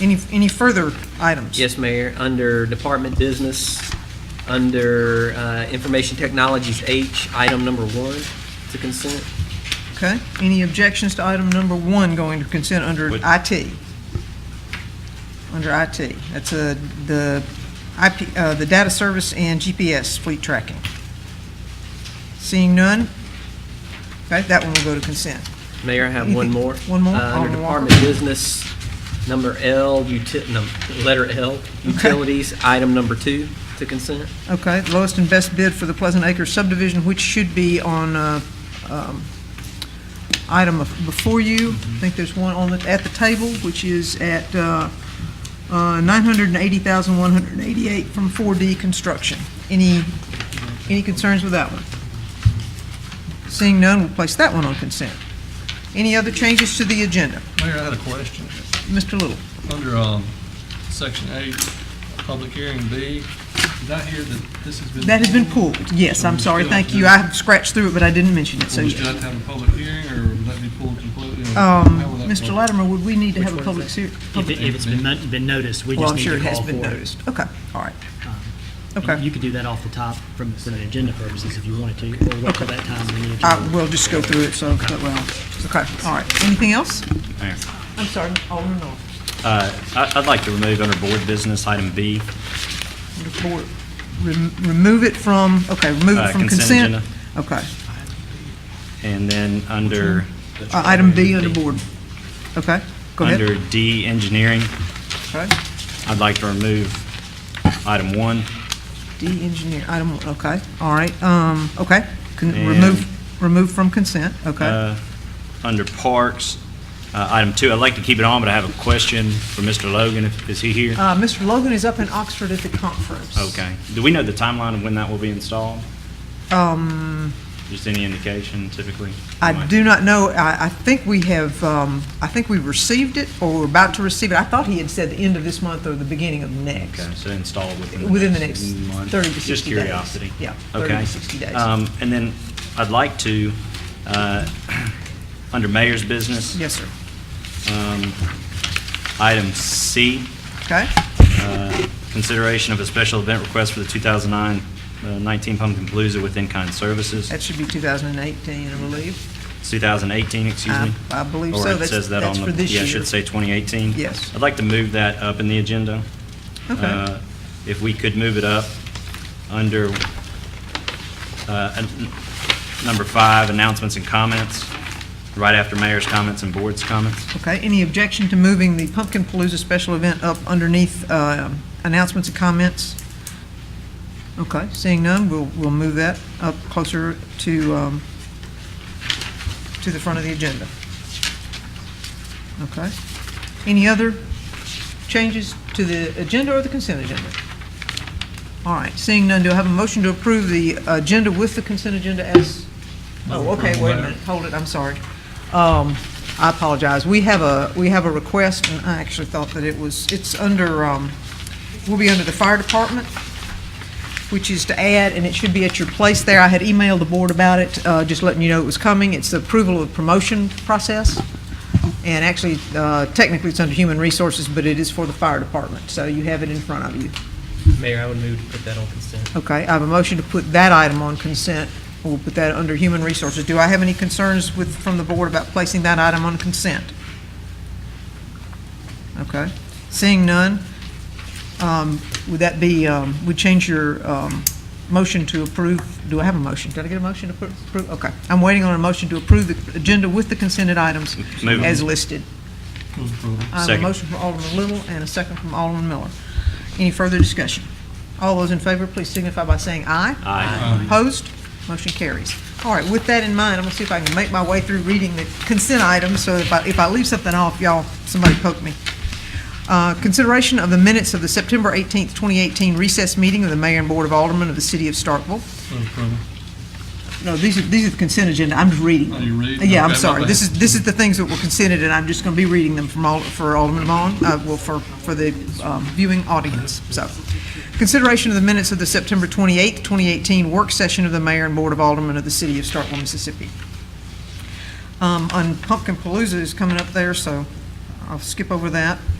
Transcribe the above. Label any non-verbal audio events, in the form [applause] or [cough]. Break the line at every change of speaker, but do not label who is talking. Any, any further items?
Yes, Mayor, under Department Business, under uh, Information Technologies H, item number one, to consent.
Okay. Any objections to item number one going to consent under
Would-
IT? Under IT. That's uh, the IP, uh, the data service and GPS fleet tracking. Seeing none? Okay, that one will go to consent.
Mayor, I have
[laughs]
one more.
One more?
Uh, Under
Alderman Walker.
Department Business, number L, uti- no, letter L, Utilities, item number two, to consent.
Okay, lowest and best bid for the Pleasant Acres subdivision, which should be on uh, um, item of- before you. I think there's one on, the- at the table, which is at uh, uh, 980,188 from 4D Construction. Any, any concerns with that one? Seeing none, we'll place that one on consent. Any other changes to the agenda?
Mayor, I had a question.
Mr. Little?
Under um, Section 8, Public Hearing B, did I hear that this has been?
That has been pulled. Yes, I'm sorry, thank you. I scratched through it, but I didn't mention it, so
Will we still
yes.
have to have a public hearing, or would that be pulled completely? or
Um,
how will that
Mr.
work?
Latimer, would we need to have a public se-
If it-
public
if it's been, mon- been noticed, we
Well,
just
I'm
need
sure
to
it has
call for
been
it.
noticed. Okay, all right.
Um, and
Okay.
You could do that off the top from, from an agenda purposes if you wanted to, or wait till that time when the
I
agenda.
will Uh, just go through it, so, but well, okay, all right. Anything else?
Mayor.
I'm sorry, Alderman North.
Uh, I- I'd like to remove under board business item B.
Report. Rem- Remove it from, okay, remove it
Uh,
from
consent
consent. Okay,
And then under,
Uh, item B on the board. Okay, go ahead.
under D, engineering,
Okay.
I'd like to remove item one.
D, engineer, item, one. okay, all right, um, okay. Con- Remove, remove from consent, okay.
Uh, Under parks, uh, item two, I'd like to keep it on, but I have a question for Mr. Logan. if- Is he here?
Uh, Mr. Logan is up in Oxford at the conference.
Okay. Do we know the timeline of when that will be installed?
Um,
Just any indication typically?
I do not know, I, I think we have, um, I think we received it, or we're about to receive it. I thought he had said the end of this month or the beginning of next,
Okay, so installed within the next
within the next
month.
30 to 60 days.
Just curiosity.
Yeah, 30
Okay.
to 60 days.
Um, And then I'd like to, uh, [clears throat] under mayor's business,
Yes, sir.
um, item C,
Okay,
uh, consideration of a special event request for the 2009 uh, 19 Pumpkin Palooza with in-kind services,
that should be 2018, I believe.
2018, excuse
I-
me.
I believe so.
Or it
That's-
says that on
that's
the...
for this
Yeah, I
year.
should say 2018.
Yes.
I'd like to move that up in the agenda.
Okay,
Uh, If we could move it up under uh, an- number five, announcements and comments, right after mayor's comments and board's comments.
okay. Any objection to moving the Pumpkin Palooza special event up underneath um, announcements and comments? Okay, seeing none, we'll, we'll move that up closer to, um, to the front of the agenda. Okay. Any other changes to the agenda or the consent agenda? All right, seeing none, do I have a motion to approve the agenda with the consent agenda as, oh, okay, wait a minute, hold it, I'm sorry. Um, I apologize. We have a, we have a request, and I actually thought that it was, it's under, um, will be under the fire department which is to add, and it should be at your place there. I had emailed the board about it, uh, just letting you know it was coming. It's the approval of promotion process. And actually, uh, technically, it's under human resources, but it is for the fire department. So you have it in front of you.
Mayor, I would move to put that on consent.
Okay, I have a motion to put that item on consent. We'll put that under human resources. Do I have any concerns with, from the board about placing that item on consent? Okay, seeing none, um, would that be, um, would change your um, motion to approve? Do I have a motion? Did I get a motion to appro- approve? Okay, I'm waiting on a motion to approve the agenda with the consented items
Move.
as listed.
Move approval.
I have a
Second.
motion from Alderman Little and a second from Alderman Miller. Any further discussion? All those in favor, please signify by saying aye.
Aye.
Opposed? Motion carries. All right, with that in mind, I'm gonna see if I can make my way through reading the consent items, so if I, if I leave something off, y'all, somebody poke me. Uh, Consideration of the minutes of the September 18th, 2018 recess meeting of the Mayor and Board of Aldermen of the City of Starkville.
Move approval.
No, these are, these are the consent agenda, I'm just reading.
Oh,
them.
you're Mm-hmm. reading?
Yeah, I'm
Okay, my
sorry,
bad.
this is, this is the things that were consented, and I'm just going to be reading them from all, for Alderman Vaughn, uh, well, for, for the um, viewing audience, so. Consideration of the minutes of the September 28th, 2018 work session of the Mayor and Board of Aldermen of the City of Starkville, Mississippi. Um, And Pumpkin Palooza is coming up there, so I'll skip over that.